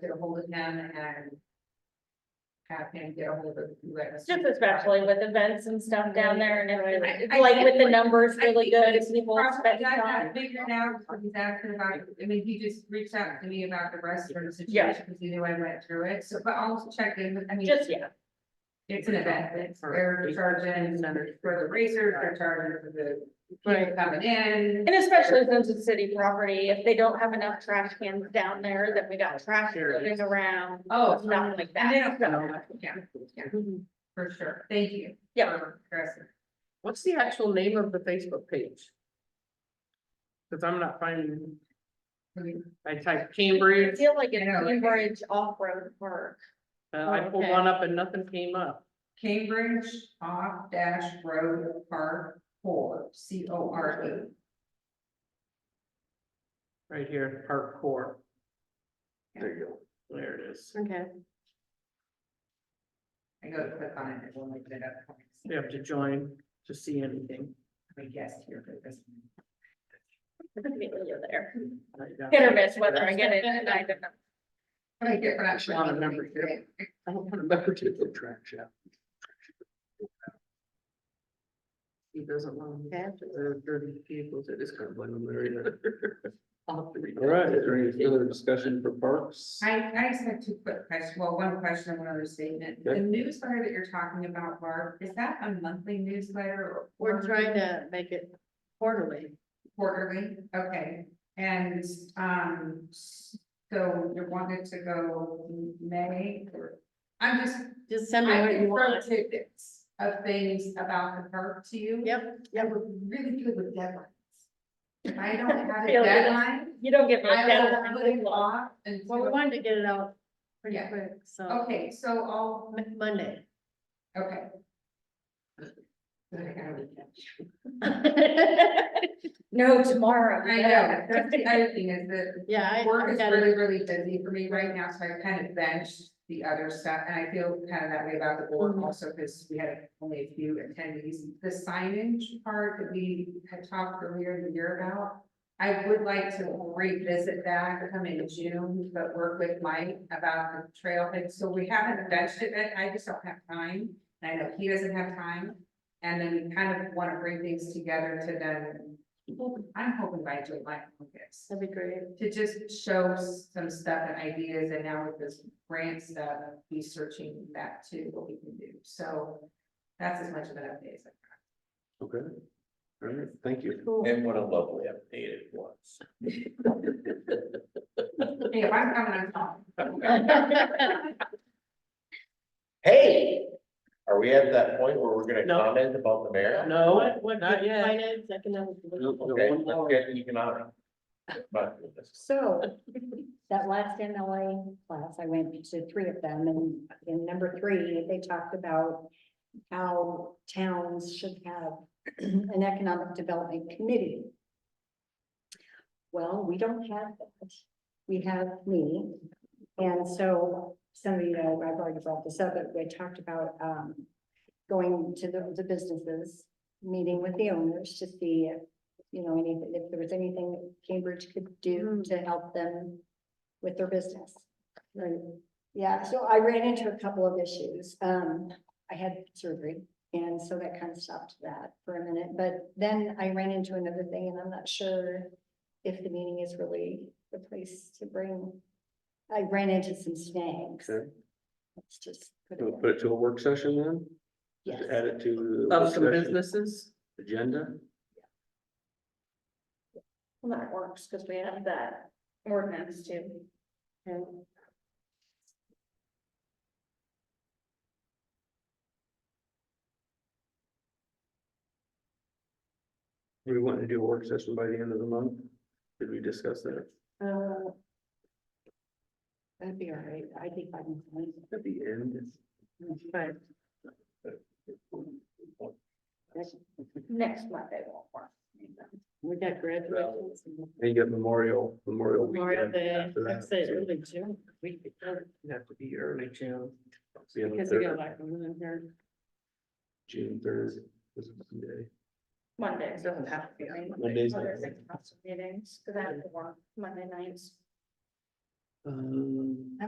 get ahold of him and. Have him get ahold of whoever. Just especially with events and stuff down there and I- everything, I like with the definitely- numbers I really think good, it's if people Probably spend got time. that figured out, because he's asking about, I mean, he just reached out to me about the restroom Yeah. situation, because he knew I went through it, so, but I'll check in, with- I mean. Just, yeah, It's an event, it's, they're charging for the racers, they're charging for the people Right. coming in. and especially since it's city property, if they don't have enough trash cans down there, then we got trash floating around, Oh, nothing like and they that. don't, know. yeah, yeah, Mhm. for sure, thank you. Yep. for addressing. What's the actual name of the Facebook page? Cause I'm not finding, I typed I Cambridge, feel like it's I know, like- Cambridge Off-Road Park. uh, I pulled Oh, Okay. one up and nothing came up. Cambridge off dash road park four, C O R E. Right here, part four, There you go. there it is. Okay. I go to click on it, it will make it up. You have to join to see anything. I guess here for this. Immediately there. I got Hit or it. miss whether I get it, and I don't know. Right here, but I'm sure- Not a member here. I don't remember to The track shaft. He doesn't want. Okay. There are thirty people, it is kind of like. uh, All All right, is there any further discussion for parks? I, I just have two quick questions, well, one question and one other statement. The Okay. newsletter that you're talking about, Barb, is that a monthly newsletter or? to make it quarterly. Quarterly, okay, and, um, so you wanted to go May or? I'm just, Just send I prefer tidbits of things about the park to you. Yep, Yeah, we're really good with deadlines. If I don't have a Feel good. deadline, You don't get. me a I deadline. will put it off until, wanted to get it out pretty Yeah. quick, so okay, so I'll, Monday. okay. I gotta look at it. No, tomorrow. I know, that's the other thing is that Yeah, work is really, really busy for me right now, so I kind of benched the other stuff, and I feel kind of that way about the board Mhm. also, because we had only a few attendees. The signage part that we had talked earlier in the year about, I would like to revisit that come in June, but work with Mike about the trailhead, so we haven't benched it, yet. I just don't have time. And I know he doesn't have time, and then we kind of want to bring things together to then, I'm hoping by July, August That'd be great. to just show some stuff and ideas, and now with this grant stuff, researching that too, what we can do, so. That's as much of an update as I Okay. All right, thank you. And what a lovely update it was. can. Hey, if I'm coming, I'm calling. Hey, are we at that point where we're gonna No. comment about the mayor? No, not yet. No, no, Okay, one let's more. get economic. But So, that last NLA class, I went to three of them, and in number three, they talked about how towns should have an economic development committee. Well, we don't have that. We have me. And so, some of you know, I've already brought this up, but we talked about, um, going to the, the businesses, meeting with the owners to see if, you know, any, if there was anything that Cambridge could do to help them with their business. Right. Yeah, so I ran into a couple of issues. Um, I had surgery and so that kind of stopped that for a minute, but then I ran into another thing and I'm not sure if the meeting is really the place to bring. I ran into some snags. Okay. Let's just. put it We'll there. Put it to a work session then? Yes. Add it to. the Of work some session businesses, Agenda? Well, That works, because we have that ordinance too. And We want to do a work session by the end of the month? Did we discuss that? Uh, That'd be all right. I think I can. find it. At the end? But next Monday won't work. we got graduations. And you got Memorial, Memorial. weekend after that, so June. we it'd have to be early June. it's the end of Because we third- got like women in here. June third. this is Monday. Monday. so Doesn't have to be on Mondays. Other six council meetings, because I have to work Monday nights. Um.